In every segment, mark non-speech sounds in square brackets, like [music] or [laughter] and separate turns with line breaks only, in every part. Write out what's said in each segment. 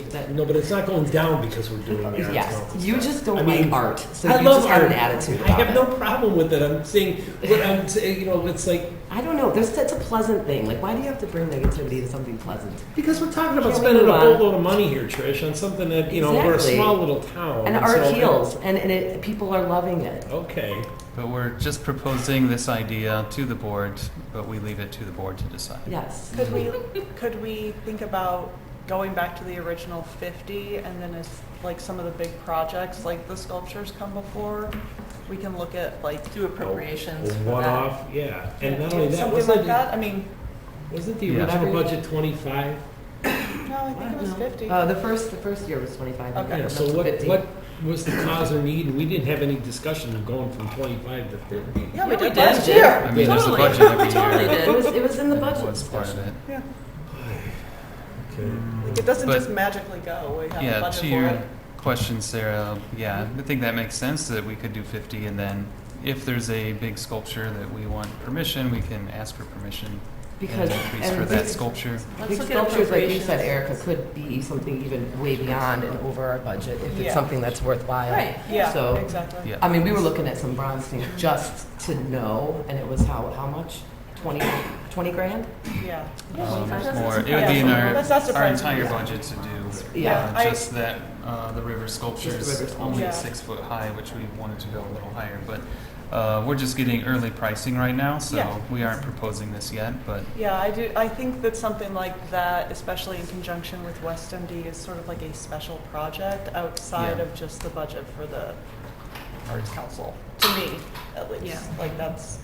that,
No, but it's not going down because we're doing the arts
yes,
council
you
stuff.
just don't
I
like
mean,
art, so
I
you
love
just have an
art.
attitude
I
about
have
it.
no problem with it. I'm saying, what I'm saying, you know, it's like,
I don't know. There's that's a pleasant thing. Like, why do you have to bring negativity to something pleasant?
because we're talking about
Can't we
spending a
move on?
boatload of money here, Trish, on something that, you know, we're a
Exactly.
small little town.
And
and
art
so-
heals, and, and it, people are loving it.
Okay.
But we're just proposing this idea to the board, but we leave it to the board to decide.
Yes.
Could we, could we think about going back to the original 50 and then as, like, some of the big projects, like the sculptures come before? We can look at, like, do appropriations
A
for that.
One-off, yeah. And not only that,
Something like
wasn't,
that, I mean,
wasn't the
Yeah.
original budget twenty-five?
no, I think it was
No.
50.
Uh, the first the first year was 25.
Okay.
Yeah,
and
so
that's
what,
50.
what was the cause or need? We didn't have any discussion of going from twenty-five to fifty.
Yeah, we
Yeah, we
did last
did.
year.
I mean, there's a
Totally.
budget every year.
Totally
It was,
did.
it was in
[laughs]
the budget
What's part of
discussion.
it?
Yeah.
Okay.
Like, It doesn't
But-
just magically go, we have a
Yeah,
budget
to
for
your
it.
question, Sarah, yeah, I think that makes sense that we could do 50 and then if there's a big sculpture that we want permission, we can ask for permission
Because
and increase
and
for that
big-
sculpture.
Let's
Big
look at
sculptures, like you said, Erica,
appropriations.
could be something even way beyond and over our budget if it's
Yeah.
something that's worthwhile.
Right.
Yeah,
So,
exactly.
Yeah.
I mean, we were looking at some bronze things just to know, and it was how, how much? 20, 20 grand?
Yeah.
Um,
that's
More, it would
surprising.
be in our,
That's not
our
surprising.
entire
Yeah.
budget to do.
Yeah.
uh,
I-
Just that, uh, the river sculpture
Just the
is
river
only
sculpture.
six foot high, which we wanted to go a little higher, but, uh, we're just getting early pricing right now,
Yeah.
so we aren't proposing this yet, but
Yeah, I do, I think that something like that, especially in conjunction with West MD, is sort of like a special project outside
Yeah.
of just the budget for the Arts Council, to me, at least.
Yeah.
Like, that's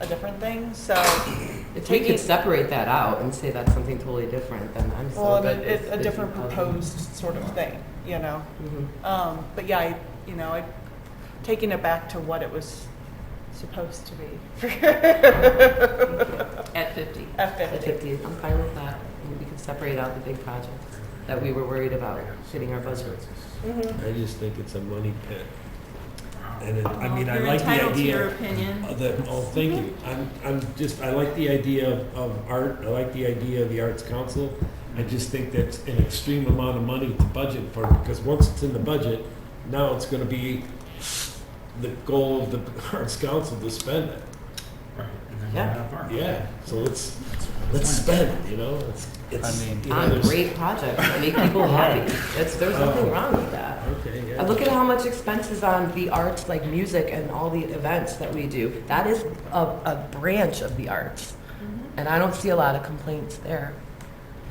a different thing, so,
If we
Taking-
could separate that out and say that's something totally different, then I'm so
well, and
good.
it-
with
it's a
the
different
details.
proposed sort of thing, you know?
Mhm.
Um, but yeah, I, you know, I, taking it back to what it was supposed to be
At 50.
at
Mm-hmm. At
fifty.
50, I'm fine with that. And We could separate out the big projects that we were worried about hitting our budget.
Mhm.
I just think it's a money pit. And it, I
Well,
mean, I
you're
like the
entitled to your Mhm.
idea
opinion.
of the, oh, thank you. I'm, I'm just, I like the idea of, of art, I like the idea of the Arts Council. I just think that's an extreme amount of money to budget for, because once it's in the budget, now it's gonna be the goal of the [laughs] Arts Council to spend it.
Right, and then
Yeah.
we're not far.
Yeah, so let's, let's spend, you know, it's, it's.
I mean-
you know,
On
there's-
Ah, great projects, that make
[laughs]
people happy. That's, there's nothing
Oh.
wrong with that.
Okay, yeah.
And look at how much expense is on the arts, like music and all the events that we do. That is a, a branch of the arts.
Mm-hmm.
And I don't see a lot of complaints there.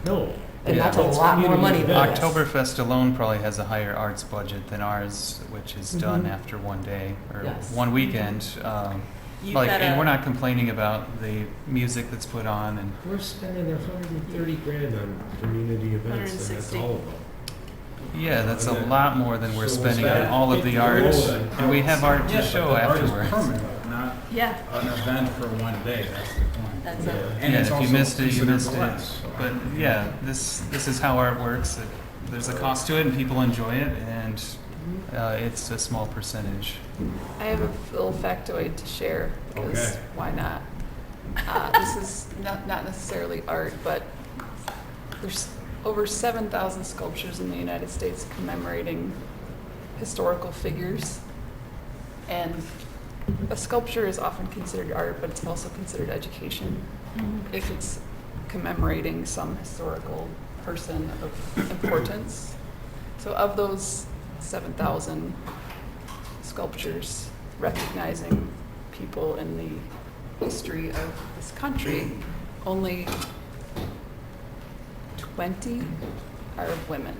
No.
And
Yeah.
that's a lot more
community
money than
events.
Oktoberfest alone probably has a higher arts budget than ours, which is done
Mhm.
after one day or
Yes.
one weekend. Um,
You've
like,
got
and
a-
we're not complaining about the music that's put on, and
We're spending a hundred and thirty grand on community events, and that's
160.
all of them.
yeah, that's a
Okay.
lot more than we're
So we'll
spending on
spend
all of the
50
art,
grand.
and we have art
Yeah,
to
but
show
the art is
afterwards.
permanent, not
Yeah,
an event for one day, that's the point.
that's it.
And
yeah,
it's
if you
also
missed it, you
considered
missed it.
less, so I-
But yeah, this this is how art works. It, there's a cost to it, and people enjoy it, and uh, it's a small percentage.
I have a little factoid to share because
Okay.
why not? Uh, this is not, not necessarily art, but there's over 7,000 sculptures in the United States commemorating historical figures. And a sculpture is often considered art, but it's also considered education if it's commemorating some historical person of importance. So of those 7,000 sculptures recognizing people in the history of this country, only 20 are of women.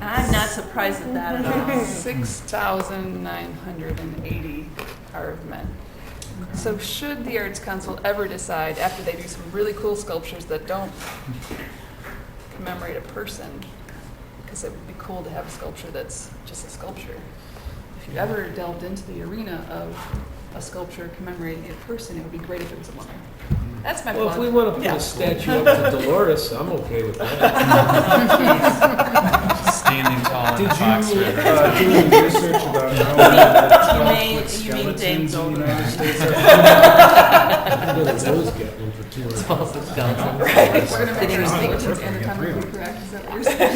I'm not surprised at that at all.
[laughs]
6,980 are of men. So should the Arts Council ever decide, after they do some really cool sculptures that don't commemorate a person, because it would be cool to have a sculpture that's just a sculpture. If you ever delved into the arena of a sculpture commemorating a person, it would be great if it was a woman. That's my
Well, if we
plug.
wanna put a statue up to Dolores, I'm okay with that.
Standing tall in
Did
the box
you
river.
uh, do any research about [laughs] how
You
uh,
mean-
with
you mean Dave
skeletons in the
Goldberg.
United States?
I'm gonna
[laughs]
those get one for two hundred. [laughs]
It's also skeleton.
We're gonna make our
Oh,
statements
perfect.
anatomically correct, is that what you're saying?
[laughs]